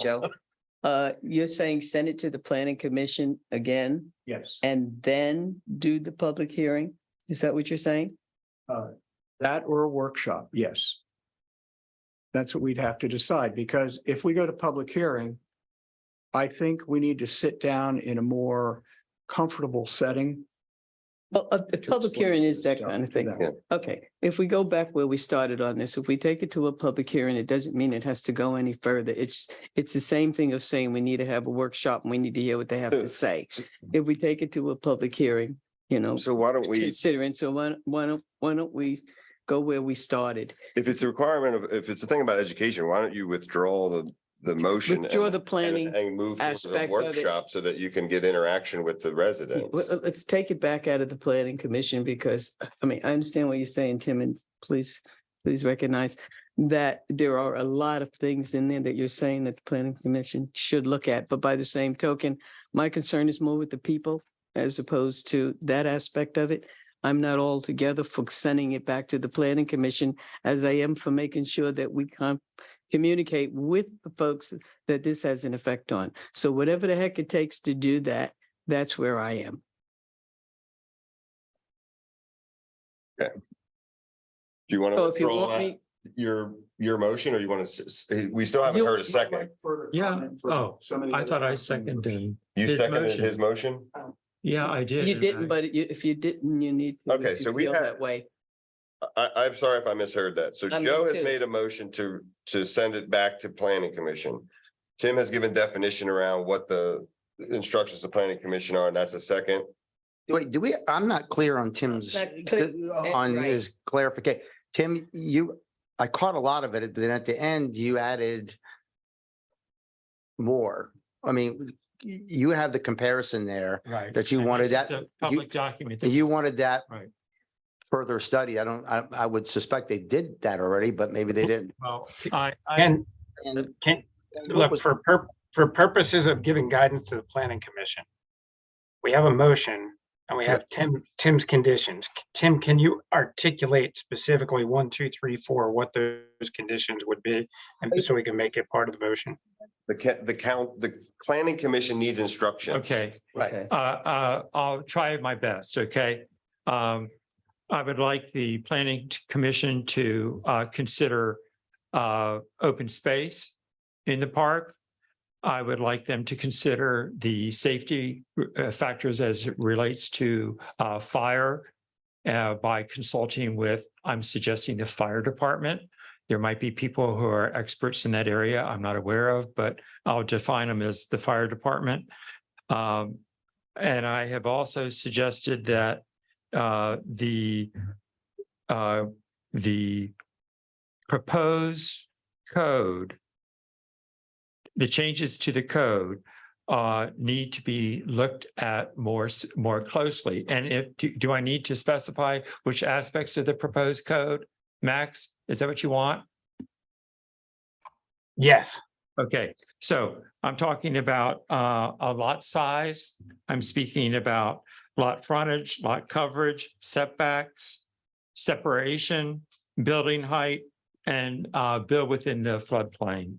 Joe. Uh, you're saying send it to the planning commission again Yes, and then do the public hearing? Is that what you're saying? that or a workshop, yes. That's what we'd have to decide, because if we go to public hearing, I think we need to sit down in a more comfortable setting. Well, a, a to public explain hearing is this that stuff kind of to thing. them. Okay, if we go back where we started on this, if we take it to a public hearing, it doesn't mean it has to go any further. It's, it's the same thing of saying we need to have a workshop and we need to hear what they have to say. If we take it to a public hearing, you know, So why don't we, considering, so why, don't- why don't, why don't we go where we started? if it's a requirement of, if it's a thing about education, why don't you withdraw the, the motion? and- Withdraw the and- planning. And move to aspect of the it. workshop so that you can get interaction with the Well, residents. uh, Let's take it back out of the planning commission because, I mean, I understand what you're saying, Tim, and please, please recognize that there are a lot of things in there that you're saying that the planning commission should look at, but by the same token, my concern is more with the people as opposed to that aspect of it. I'm not altogether for sending it back to the planning commission as I am for making sure that we can communicate with the folks that this has an effect on. So whatever the heck it takes to do that, that's where I am. Do you want to So if you withdraw want that- me, your, your motion or you want to, we still haven't You- heard a second? Yeah. Oh, I thought I seconded. You His seconded motion. his motion? Yeah, I did. you and didn't, I- but you- if you didn't, you need. to, Okay, if you so we feel had- That way. I, I'm sorry if I misheard that. So Uh, I mean, Joe has too. made a motion to, to send it back to planning commission. Tim has given definition around what the instructions to planning commission are, and that's a second. Wait, do we, I'm not clear on Tim's, uh, not clear, on uh, right. his clarification. Tim, you, I caught a lot of it, but then at the end you added more. I mean, y- you have the comparison there. Right. that you And this wanted is that- a Public document. that You was- wanted that Right. further study. I don't, I, I would suspect they did that already, but maybe they didn't. Well, I, I, And And can, and what look, was- for pur- for purposes of giving guidance to the planning commission, we have a motion and we have Tim, Tim's conditions. Tim, can you articulate specifically one, two, three, four, what those conditions would be? And so we can make it part of the motion. The ca- the count, the planning commission needs instructions. okay, Right. uh, uh, I'll try my best, okay? Um, I would like the planning t- commission to, uh, consider, uh, open space in the park. I would like them to consider the safety uh, factors as it relates to, uh, fire uh, by consulting with, I'm suggesting the fire department. There might be people who are experts in that area I'm not aware of, but I'll define them as the fire department. Um, and I have also suggested that uh, the uh, the proposed code, the changes to the code uh, need to be looked at more s- more closely. And if do, do I need to specify which aspects of the proposed code? Max, is that what you want? Yes, Okay, so I'm talking about uh, a lot size. I'm speaking about lot frontage, lot coverage, setbacks, separation, building height, and uh, build within the floodplain.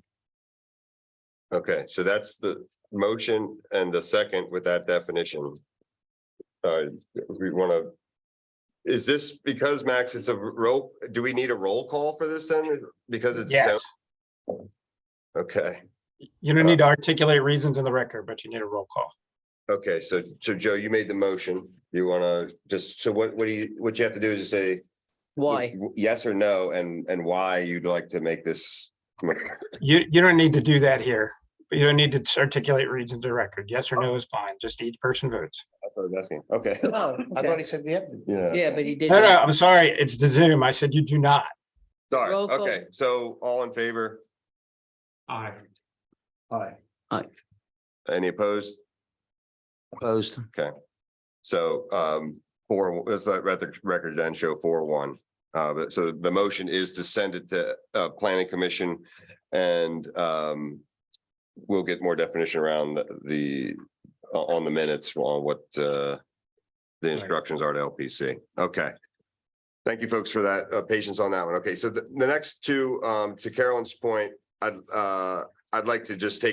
Okay, so that's the motion and the second with that definition. Uh, we want to. Is this because Max, it's a roll, do we need a roll call for this then? Because it's. yes. Okay, You don't need to articulate reasons in the record, but you need a roll call. okay, so, so Joe, you made the motion. You want to just, so what, what do you, what you have to do is just say. Why? Yes or no, and, and why you'd like to make this. motion. You, you don't need to do that here. You don't need to articulate reasons in record. Yes or no is fine. Just each person votes. That's what I was asking. Okay, Oh, I okay. thought he said we have to. yeah. Yeah, but he did. No, no, I'm sorry. It's the Zoom. I said you do not. Sorry, Roll call. okay, so all in favor? Aye. Hi. Any opposed? Opposed. So um four, that's that record record then show four one. Uh but so the motion is to send it to uh planning commission and um. We'll get more definition around the- the on the minutes on what uh. The instructions are to LPC. Okay. Thank you, folks, for that uh patience on that one. Okay, so the the next two, um to Carolyn's point, I'd uh I'd like to just take.